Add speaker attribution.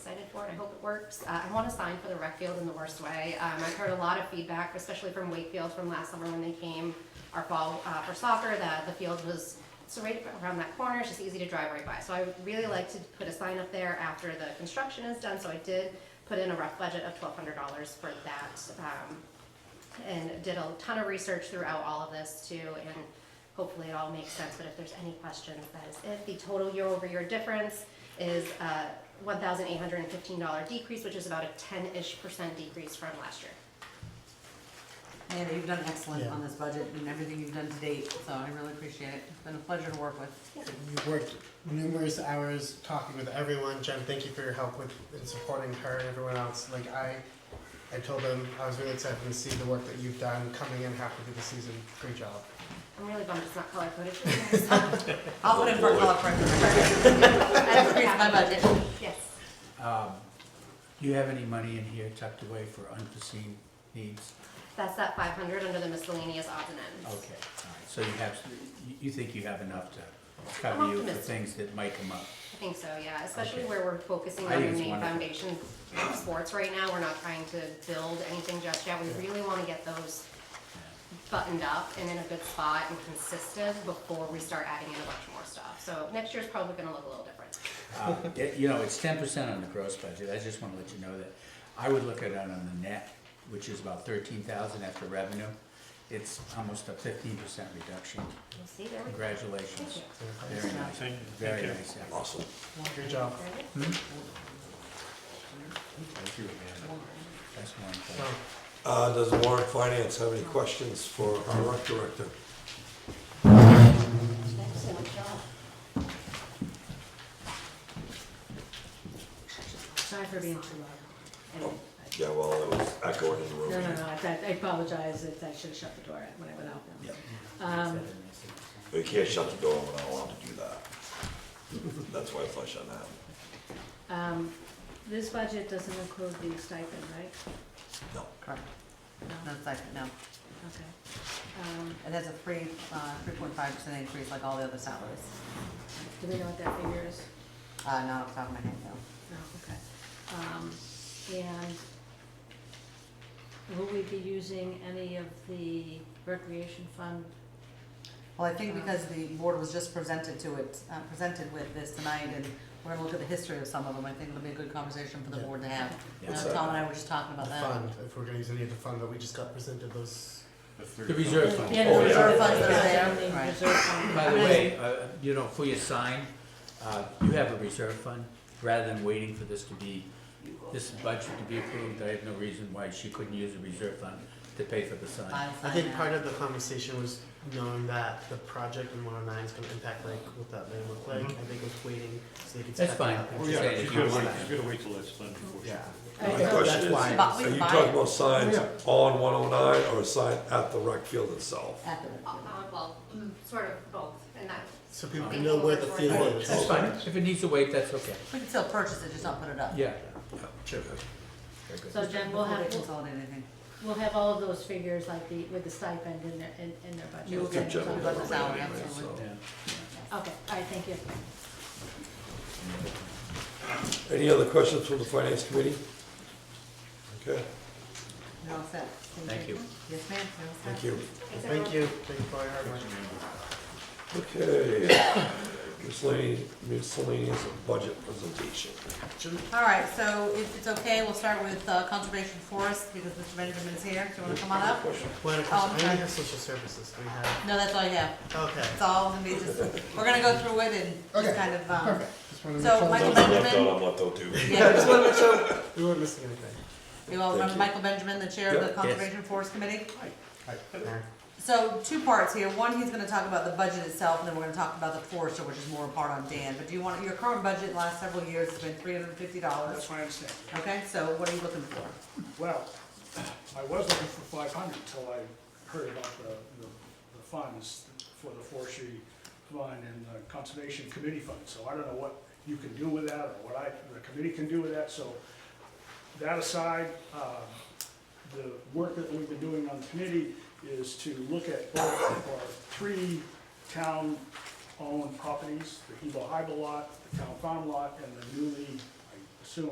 Speaker 1: for it, I hope it works. Uh, I want to sign for the rec field in the worst way. Um, I've heard a lot of feedback, especially from Wakefield from last summer when they came, our fall, uh, for soccer, that the field was, it's right around that corner, it's just easy to drive right by. So I would really like to put a sign up there after the construction is done, so I did put in a rough budget of twelve hundred dollars for that, um, and did a ton of research throughout all of this too, and hopefully it all makes sense, but if there's any questions, that is it. The total year-over-year difference is a one thousand eight hundred and fifteen dollar decrease, which is about a ten-ish percent decrease from last year.
Speaker 2: Amanda, you've done excellent
Speaker 3: Yeah.
Speaker 2: on this budget and everything you've done to date, so I really appreciate it. It's been a pleasure to work with.
Speaker 3: You've worked numerous hours talking with everyone. Jen, thank you for your help with in supporting her and everyone else. Like I, I told them I was really excited to see the work that you've done coming in halfway through the season. Great job.
Speaker 1: I'm really bummed it's not color coded.
Speaker 2: I'll put in for a color corrector. Increase my budget.
Speaker 1: Yes.
Speaker 4: Um, Do you have any money in here tucked away for unforeseen needs?
Speaker 1: That's that five hundred under the miscellaneous odds and
Speaker 4: Okay, all
Speaker 1: ends.
Speaker 4: right, so you have, you- you think you have enough to
Speaker 1: I'm
Speaker 4: cover you for
Speaker 1: optimistic.
Speaker 4: things that might come up?
Speaker 1: I think so, yeah, especially
Speaker 4: Okay.
Speaker 1: where we're focusing on
Speaker 4: I
Speaker 1: the
Speaker 4: think it's
Speaker 1: main
Speaker 4: wonderful.
Speaker 1: foundation of sports right now. We're not trying to build anything just yet. We really wanna get those buttoned up and in a good spot and consistent before we start adding in a bunch more stuff. So next year's probably gonna look a little different.
Speaker 4: Uh, it- You know, it's ten percent on the gross budget, I just wanna let you know that. I would look at it on the net, which is about thirteen thousand after revenue. It's almost a fifteen percent reduction.
Speaker 1: We'll see, there we go. Thank
Speaker 4: Congratulations.
Speaker 1: you.
Speaker 4: Very nice, very nice. Awesome.
Speaker 3: Good job.
Speaker 1: Very good.
Speaker 4: That's one thing.
Speaker 3: So,
Speaker 5: Uh, does Warren Finance have any questions for our rec director?
Speaker 6: Sorry for being too loud.
Speaker 5: Yeah, well, it was echoing in the
Speaker 6: No, no, no, I I apologize, It's- I should have shut the door when I went out. Um,
Speaker 1: uh,
Speaker 5: You can't shut the door, we're not allowed to do that. That's why I flush on that.
Speaker 6: um, This budget doesn't include the stipend, right?
Speaker 5: No.
Speaker 2: Correct. No,
Speaker 6: No,
Speaker 2: it's like, no.
Speaker 6: okay. Um,
Speaker 2: It has a three, uh, three point five percent increase like all the other salaries.
Speaker 6: Do we know what that figure is?
Speaker 2: Uh, not off the top of my head, no.
Speaker 6: No, okay. Um, And will we be using any of the recreation fund?
Speaker 2: Well, I think because the board was just presented to it, uh, presented with this tonight, and we're gonna look at the history of some of them, I think it'll be a good conversation for the
Speaker 3: Yeah.
Speaker 2: board to have.
Speaker 4: Yeah.
Speaker 2: Uh,
Speaker 5: What's that?
Speaker 2: Tom and I were just talking
Speaker 3: the
Speaker 2: about that.
Speaker 3: fund, if we're gonna use any of the fund that we just got presented, those.
Speaker 4: The reserve fund.
Speaker 6: Yeah,
Speaker 5: Oh,
Speaker 6: the
Speaker 5: yeah.
Speaker 6: reserve funds that
Speaker 2: Yeah,
Speaker 6: are there.
Speaker 2: the
Speaker 6: Right.
Speaker 4: By the way, uh, you know, for your sign, uh, you have a reserve fund, rather than waiting for this to be, this budget to be approved, I have no reason why she couldn't use the reserve fund to pay for the sign.
Speaker 2: I'll
Speaker 3: I
Speaker 2: sign
Speaker 3: think
Speaker 2: that.
Speaker 3: part of the conversation was knowing that the project in 109 is gonna impact like what that may look like. I think it was waiting so they could.
Speaker 4: That's
Speaker 3: step it
Speaker 4: fine.
Speaker 3: up and
Speaker 4: Well,
Speaker 7: Yeah,
Speaker 3: just-
Speaker 4: Say
Speaker 7: she's
Speaker 4: if you
Speaker 7: gotta
Speaker 4: want
Speaker 7: wait,
Speaker 4: that.
Speaker 7: she's gotta wait till that's done before she.
Speaker 3: Yeah.
Speaker 6: All
Speaker 5: My
Speaker 6: right, so-
Speaker 5: question
Speaker 3: That's why.
Speaker 2: But we
Speaker 5: is, are you
Speaker 2: buy
Speaker 5: talking
Speaker 2: it.
Speaker 5: about signs
Speaker 3: Yeah.
Speaker 5: on one oh nine or a sign at the rec field itself?
Speaker 2: At the-
Speaker 1: Uh, well, sort of both, and that,
Speaker 3: So people can know where the field is.
Speaker 4: That's fine, if it needs to wait, that's okay,
Speaker 2: We can still purchase it, just not put it up.
Speaker 4: yeah.
Speaker 5: Sure.
Speaker 4: Very good.
Speaker 6: So Jen, we'll
Speaker 2: Before
Speaker 6: have,
Speaker 2: they
Speaker 6: we'll-
Speaker 2: consolidate anything.
Speaker 6: we'll have all of those figures like the, with the stipend in their, in in their budget.
Speaker 2: You will
Speaker 5: Good
Speaker 2: get
Speaker 5: job.
Speaker 2: something about the salary, absolutely.
Speaker 4: Yeah.
Speaker 6: Okay, all right, thank you.
Speaker 5: Any other questions from the finance committee? Okay,
Speaker 2: You're all set.
Speaker 4: Thank you.
Speaker 2: Yes, ma'am, you're all set.
Speaker 5: thank you.
Speaker 3: Thank you, thank you for all your hard work.
Speaker 5: Okay, miscellaneous, miscellaneous budget presentation.
Speaker 2: All right, so if it's okay, we'll start with uh, Conservation Forest, because Mr. Benjamin is here, do you wanna come on up?
Speaker 3: Well,
Speaker 2: Oh,
Speaker 3: of course,
Speaker 2: I'm
Speaker 3: I only
Speaker 2: sorry.
Speaker 3: have social services, we have,
Speaker 2: No, that's all you have,
Speaker 3: okay.
Speaker 2: it's all gonna be just, we're gonna go through it and just
Speaker 3: Okay,
Speaker 2: kind of, um,
Speaker 3: Just wanted to
Speaker 2: so
Speaker 3: make sure-
Speaker 2: Michael Benjamin,
Speaker 5: I'm left out too.
Speaker 3: Yeah, I
Speaker 2: yeah,
Speaker 3: just wanted to make sure we weren't missing anything.
Speaker 2: you all remember
Speaker 5: you.
Speaker 2: Michael Benjamin, the chair of the
Speaker 5: Yep.
Speaker 4: Yes.
Speaker 2: Conservation Forest Committee? So two parts here. One, he's gonna talk about the budget itself, and then we're gonna talk about the forester, which is more a part on Dan. But do you want, your current budget the last several years has been three hundred and fifty dollars,
Speaker 8: That's my understanding.
Speaker 2: okay? So what are you looking for?
Speaker 8: Well, I was looking for five hundred until I heard about the, the the funds for the forestry fund and the conservation committee fund. So I don't know what you can do with that, or what I, the committee can do with that, so that aside, um, the work that we've been doing on the committee is to look at both our three town-owned properties, the Hebo Hybel lot, the town farm lot, and the newly, I assume,